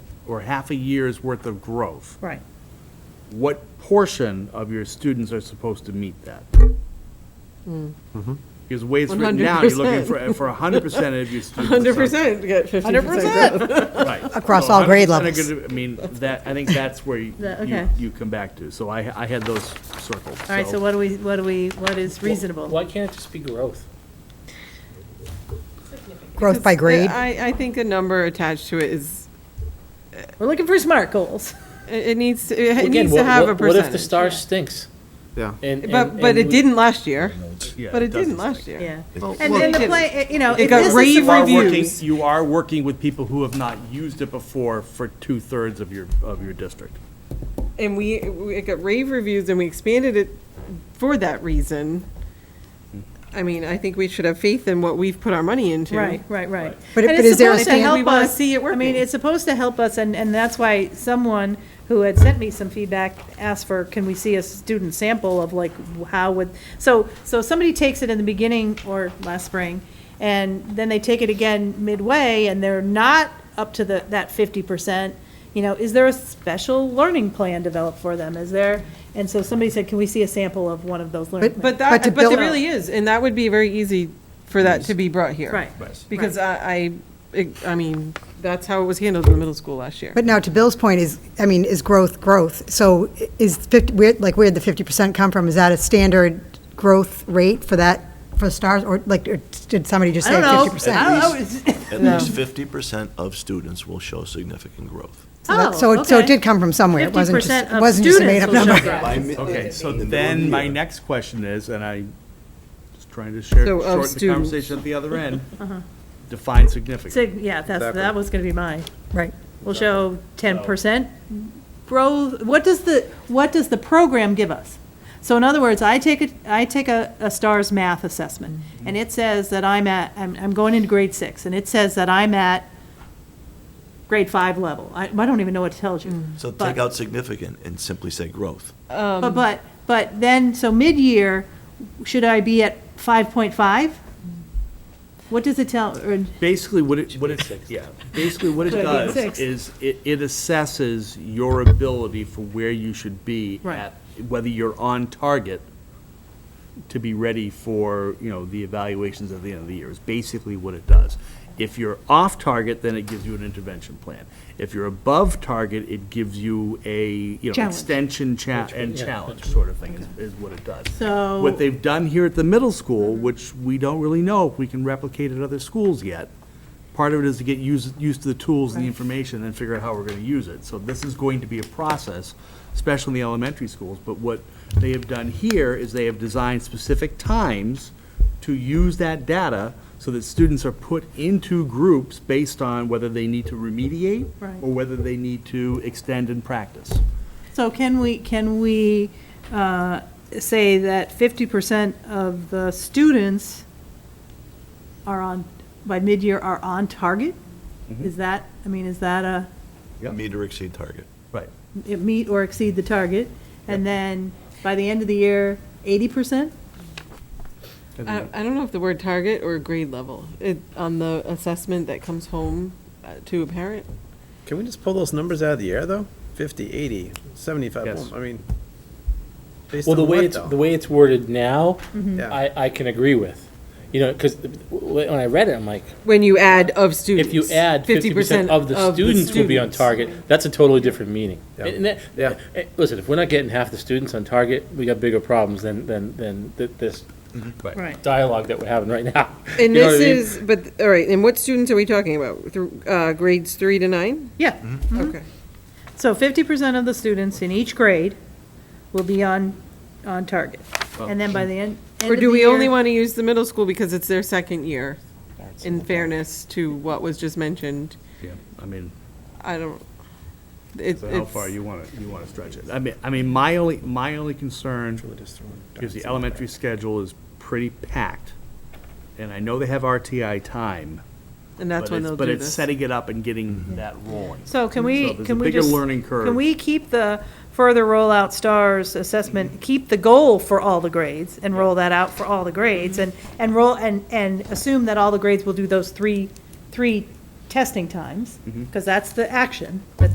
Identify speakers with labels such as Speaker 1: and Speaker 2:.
Speaker 1: or half a year's worth of growth,
Speaker 2: Right.
Speaker 1: what portion of your students are supposed to meet that?
Speaker 2: Hmm.
Speaker 1: Because the way it's written now, you're looking for, for hundred percent of your students.
Speaker 2: Hundred percent get fifty percent growth.
Speaker 1: Right.
Speaker 3: Across
Speaker 1: So
Speaker 3: all grade
Speaker 1: 100% are
Speaker 3: levels.
Speaker 1: gonna- I mean, that, I think that's where you,
Speaker 2: That-
Speaker 1: you
Speaker 2: okay.
Speaker 1: you come back to. So I, I had those circled.
Speaker 2: All right, so what do we, what do we, what is reasonable?
Speaker 4: Why can't it just be growth?
Speaker 3: Growth by grade?
Speaker 5: I, I think a number attached to it is,
Speaker 2: We're looking for SMART goals.
Speaker 5: it it needs, to- it
Speaker 4: Again,
Speaker 5: needs to
Speaker 4: what-
Speaker 5: have a
Speaker 4: what- What if the
Speaker 5: percentage.
Speaker 4: star stinks?
Speaker 6: Yeah.
Speaker 4: And-
Speaker 5: But,
Speaker 4: and-
Speaker 5: but
Speaker 4: and
Speaker 5: it
Speaker 4: we-
Speaker 5: didn't last year,
Speaker 1: Yeah,
Speaker 5: but it
Speaker 1: doesn't
Speaker 5: didn't last year.
Speaker 2: Yeah.
Speaker 5: Well,
Speaker 2: And
Speaker 5: well,
Speaker 2: then the
Speaker 5: it
Speaker 2: play, you know,
Speaker 5: It
Speaker 2: if
Speaker 5: got
Speaker 2: this is
Speaker 5: rave
Speaker 1: You are
Speaker 2: something.
Speaker 5: review-
Speaker 1: working,
Speaker 5: reviews.
Speaker 1: you are working with people who have not used it before for two-thirds of your, of your district.
Speaker 5: And we, we- it got rave reviews and we expanded it for that reason. I mean, I think we should have faith in what we've put our money into.
Speaker 2: Right, right, right.
Speaker 3: But-
Speaker 2: And
Speaker 3: but
Speaker 2: it's
Speaker 3: is there a
Speaker 2: supposed to
Speaker 3: standard?
Speaker 2: help
Speaker 5: We wanna
Speaker 2: us-
Speaker 5: see it
Speaker 2: I mean,
Speaker 5: working.
Speaker 2: it's supposed to help us, and, and that's why someone who had sent me some feedback asked for, can we see a student sample of like, how would, so, so somebody takes it in the beginning or last spring, and then they take it again midway, and they're not up to the, that fifty percent, you know, is there a special learning plan developed for them? Is there, and so somebody said, can we see a sample of one of those learning plans?
Speaker 5: But
Speaker 3: But- But to
Speaker 5: that, but
Speaker 3: build-
Speaker 5: there really is, and that would be very easy for that to be brought here.
Speaker 2: Right.
Speaker 5: Because I, I, I mean, that's how it was handled in the middle school last year.
Speaker 3: But now, to Bill's point is, I mean, is growth growth? So i- is 50, where, like, where'd the 50% come from? Is that a standard growth rate for that, for stars? Or like, or did somebody just
Speaker 2: I
Speaker 3: say
Speaker 2: don't
Speaker 3: 50%?
Speaker 2: know, I don't know, It's-
Speaker 7: At least fifty percent of students will show significant growth.
Speaker 3: So that-
Speaker 2: Oh,
Speaker 3: so it- So
Speaker 2: okay.
Speaker 3: it did come from somewhere. It wasn't just,
Speaker 2: 50%
Speaker 3: it
Speaker 2: of
Speaker 3: wasn't just a
Speaker 2: students
Speaker 3: made-up
Speaker 2: will show
Speaker 3: number.
Speaker 2: growth.
Speaker 1: Okay, so
Speaker 7: In the middle
Speaker 1: then my
Speaker 7: year.
Speaker 1: next question is, and I'm just trying to share,
Speaker 5: So of Uh-huh.
Speaker 1: shorten the
Speaker 5: students.
Speaker 1: conversation at the other end, define significant.
Speaker 2: Sig- Yeah, that's, that was gonna be mine.
Speaker 3: Right.
Speaker 2: We'll show ten percent growth, what does the, what does the program give us? So in other words, I take a, I take a, a STARS math assessment, and it says that I'm at, I'm, I'm going into grade six, and it says that I'm at grade five level, I, I don't even know what it tells you.
Speaker 7: So
Speaker 2: But-
Speaker 7: take out significant and simply say growth.
Speaker 5: Um,
Speaker 2: But, but, but then, so mid-year, should I be at five point five? What does it tell, or?
Speaker 1: Basically, what it, what it, yeah, basically what it
Speaker 2: Should be
Speaker 1: does
Speaker 2: six.
Speaker 1: is it, it assesses your ability for where you should be
Speaker 2: Right.
Speaker 1: at, whether you're on target to be ready for, you know, the evaluations at the end of the year, is basically what it does. If you're off target, then it gives you an intervention plan. If you're above target, it gives you a, you know,
Speaker 2: Challenge.
Speaker 1: extension cha, and
Speaker 4: yeah,
Speaker 1: challenge sort of thing is, is what it does.
Speaker 2: So-
Speaker 1: What they've done here at the middle school, which we don't really know if we can replicate at other schools yet, part of it is to get used, used to the tools and the information and figure out how we're gonna use it. So this is going to be a process, especially in the elementary schools, but what they have done here is they have designed specific times to use that data so that students are put into groups based on whether they need to remediate
Speaker 2: Right.
Speaker 1: or whether they need to extend and practice.
Speaker 2: So can we, can we uh, say that fifty percent of the students are on, by mid-year are on target? Is that, I mean, is that a,
Speaker 1: Yep.
Speaker 7: Meet or exceed target.
Speaker 1: Right.
Speaker 2: it meet or exceed the target? And then by the end of the year, eighty percent?
Speaker 5: I, I don't know if the word target or grade level, it, on the assessment that comes home uh, to a parent.
Speaker 6: Can we just pull those numbers out of the air, though? 50, 80, 75,
Speaker 1: Yes.
Speaker 6: I mean, based
Speaker 4: Well, the
Speaker 6: on
Speaker 4: way
Speaker 6: what,
Speaker 4: it's, the
Speaker 6: though?
Speaker 4: way it's worded now,
Speaker 5: Mm-hmm.
Speaker 6: Yeah.
Speaker 4: I, I can agree with. You know, because when I read it, I'm like,
Speaker 5: When you add of students.
Speaker 4: if you add fifty percent of the students will be on
Speaker 5: students.
Speaker 4: target, that's a totally different meaning.
Speaker 6: Yeah.
Speaker 4: And that-
Speaker 6: Yeah.
Speaker 4: eh, Listen, if we're not getting half the students on target, we got bigger problems than, than, than th- this
Speaker 2: Right.
Speaker 4: dialogue that we're having right now. You
Speaker 5: And
Speaker 4: know what I
Speaker 5: this
Speaker 4: mean?
Speaker 5: is, but, all right, and what students are we talking about? Through, uh, grades three to nine?
Speaker 2: Yeah.
Speaker 5: Okay.
Speaker 2: So fifty percent of the students in each grade will be on, on target. And then by the end, end
Speaker 5: Or
Speaker 2: of
Speaker 5: do
Speaker 2: the
Speaker 5: we only
Speaker 2: year-
Speaker 5: want to use the middle school because it's their second year? In fairness to what was just mentioned,
Speaker 1: Yeah, I mean.
Speaker 5: I don't, it-
Speaker 1: So how far
Speaker 5: it's-
Speaker 1: you want to, you want to stretch it? I mean, I mean, my only, my only
Speaker 6: Really
Speaker 1: concern
Speaker 6: just throwing
Speaker 1: is the
Speaker 6: darts.
Speaker 1: elementary schedule is pretty packed. And I know they have RTI time.
Speaker 5: and that's
Speaker 1: but
Speaker 5: when
Speaker 1: it's-
Speaker 5: they'll do
Speaker 1: But
Speaker 5: this.
Speaker 1: it's setting it up and
Speaker 6: Mm-hmm.
Speaker 1: getting that rolling.
Speaker 2: So can we,
Speaker 1: So there's a
Speaker 2: can we
Speaker 1: bigger
Speaker 2: just?
Speaker 1: learning curve.
Speaker 2: Can we keep the further rollout STARS assessment, keep the goal for all the grades and roll that out for all the grades? And, and roll, and, and assume that all
Speaker 1: Mm-hmm.
Speaker 2: the grades will do those three, three testing times? Because that's the action that